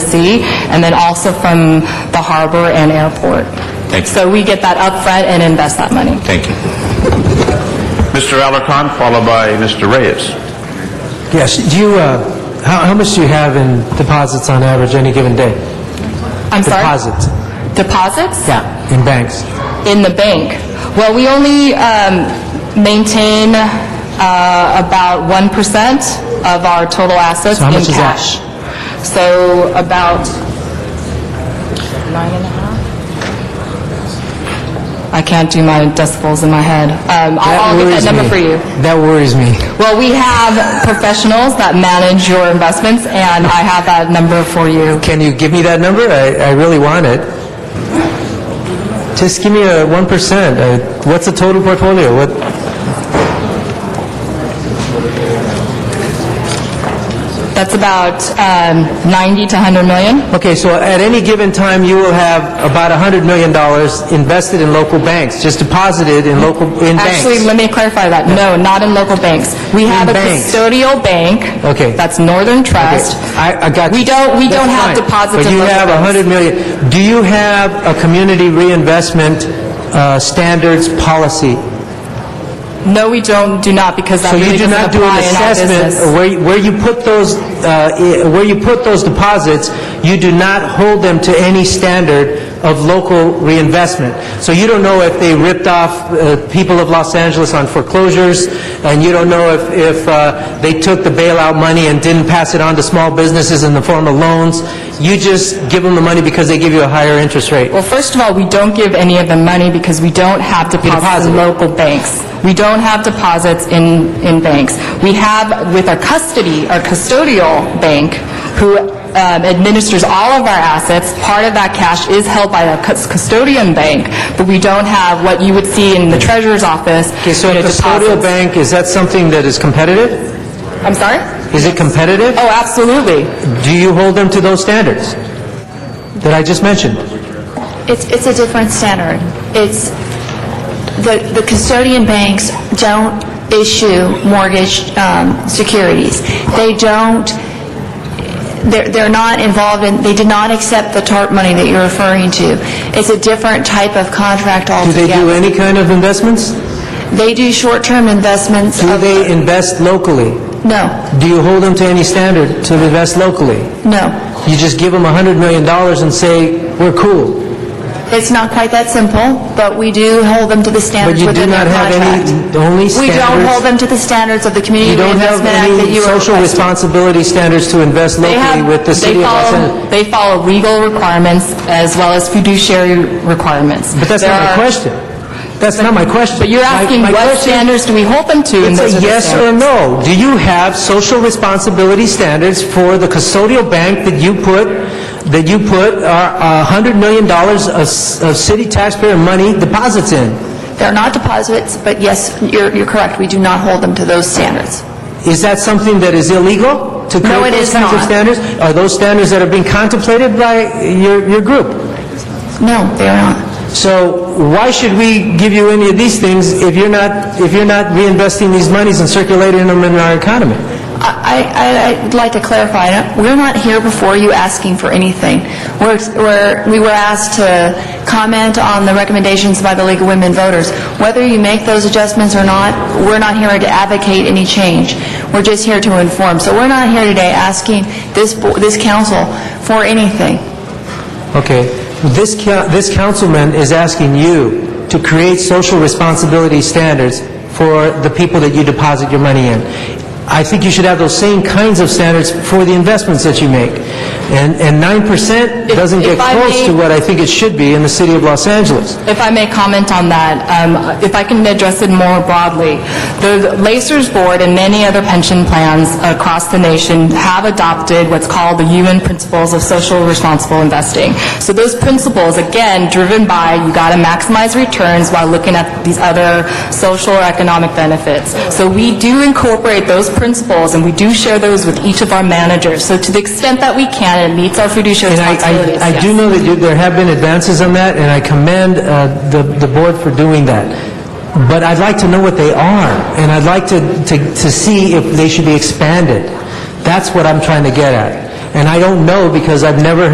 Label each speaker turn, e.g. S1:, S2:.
S1: sea, and then also from the harbor and airport.
S2: Thank you.
S1: So we get that upfront and invest that money.
S2: Thank you.
S3: Mr. Alarcon, followed by Mr. Reyes.
S4: Yes, do you, uh, how how much do you have in deposits on average any given day?
S1: I'm sorry?
S4: Deposits?
S1: Deposits?
S4: Yeah, in banks?
S1: in the bank? Well, we only um, maintain uh, about 1% of our total assets
S4: So how
S1: in
S4: much is that?
S1: cash. So about nine and a half? I can't do my decibels in my head. Um, I'll I'll get that
S4: worries
S1: number
S4: me.
S1: for you.
S4: That worries me.
S1: Well, we have professionals that manage your investments, and I have that number for you.
S4: Can you give me that number? I I really want it. Just give me a 1%. Uh, What's the total portfolio? What,
S1: That's about um, 90 to 100 million.
S4: okay, so at any given time, you will have about $100 million invested in local banks, just deposited in local, in banks.
S1: Actually, let me clarify that. No, not in local banks. We have a
S4: In banks.
S1: custodial bank.
S4: Okay.
S1: That's Northern Trust.
S4: I, I got you.
S1: We don't, we
S4: That's
S1: don't have
S4: fine.
S1: deposits in
S4: But you
S1: local
S4: have
S1: banks.
S4: 100 million. Do you have a community reinvestment uh, standards policy?
S1: No, we don't, do not, because that
S4: So
S1: really
S4: you do
S1: doesn't
S4: not do an
S1: apply in our
S4: assessment
S1: business.
S4: where, where you put those, uh, i- where you put those deposits, you do not hold them to any standard of local reinvestment. So you don't know if they ripped off uh, people of Los Angeles on foreclosures, and you don't know if, if uh, they took the bailout money and didn't pass it on to small businesses in the form of loans. You just give them the money because they give you a higher interest rate.
S1: Well, first of all, we don't give any of the money because we don't have deposits in
S4: deposit.
S1: local banks. We don't have deposits in, in banks. We have with our custody, our custodial bank, who um, administers all of our assets, part of that cash is held by a cus- custodian bank, but we don't have what you would see in the treasurer's office.
S4: Okay, so
S1: you
S4: a
S1: know,
S4: custodial
S1: deposits.
S4: bank, is that something that is competitive?
S1: I'm sorry?
S4: Is it competitive?
S1: Oh, absolutely.
S4: Do you hold them to those standards that I just mentioned?
S5: It's, it's a different standard. It's, the, the custodian banks don't issue mortgage um, securities. They don't, they're, they're not involved in, they did not accept the TARP money that you're referring to. It's a different type of contract
S4: Do they do
S5: altogether.
S4: any kind of investments?
S5: They do short-term investments
S4: Do
S5: of...
S4: they invest locally?
S5: No,
S4: Do you hold them to any standard to invest locally?
S5: no.
S4: You just give them $100 million and say, "We're cool,"
S5: It's not quite that simple, but we do hold them to the
S4: but
S5: standards
S4: you do
S5: within their
S4: not have any,
S5: contract.
S4: only standards?
S5: We don't hold them to the standards of the
S4: You
S5: Community
S4: don't have
S5: Reinvestment Act that
S4: any
S5: you are
S4: social
S5: requesting.
S4: responsibility standards to invest
S1: They
S4: locally
S1: have-
S4: with the
S1: they
S4: city of Los
S1: follow-
S4: Angeles?
S1: They follow legal requirements as well as fiduciary requirements.
S4: But that's
S1: There
S4: not my
S1: are-
S4: question. That's not my question.
S1: But you're
S4: My-
S1: asking
S4: my
S1: what
S4: question-
S1: standards do we hold them to? and
S4: It's
S1: those are
S4: a
S1: the
S4: yes or
S1: standards.
S4: no. Do you have social responsibility standards for the custodial bank that you put, that you put uh, $100 million of s- of city taxpayer money deposits in?
S5: They're not deposits, but yes, you're, you're correct, we do not hold them to those standards.
S4: Is that something that is illegal to
S5: No,
S4: create
S5: it
S4: those
S5: is
S4: kinds of
S5: not.
S4: standards? Are those standards that are being contemplated by your your group?
S5: No, they are not.
S4: So why should we give you any of these things if you're not, if you're not reinvesting these monies and circulating them in our economy?
S5: I, I, I- I'd like to clarify, uh, we're not here before you asking for anything. We're, we're, we were asked to comment on the recommendations by the League of Women Voters. Whether you make those adjustments or not, we're not here to advocate any change. We're just here to inform. So we're not here today asking this, bo- this council for anything.
S4: Okay, this, ca- this councilman is asking you to create social responsibility standards for the people that you deposit your money in. I think you should have those same kinds of standards for the investments that you make. And, and 9%
S1: If-
S4: doesn't get
S1: if I
S4: close
S1: may-
S4: to what I think it should be in the city of Los Angeles.
S1: If I may comment on that, um, if I can address it more broadly, the Lacers Board and many other pension plans across the nation have adopted what's called the UN Principles of Social Responsible Investing. So those principles, again, driven by you got to maximize returns while looking at these other social or economic benefits. So we do incorporate those principles, and we do share those with each of our managers. So to the extent that we can, it meets our fiduciary
S4: And I-
S1: responsibilities.
S4: I, I do
S1: yes.
S4: know that you- there have been advances on that, and I commend uh, the, the board for doing that. But I'd like to know what they are, and I'd like to, to, to see if they should be expanded. That's what I'm trying to get at. And I don't know because I've never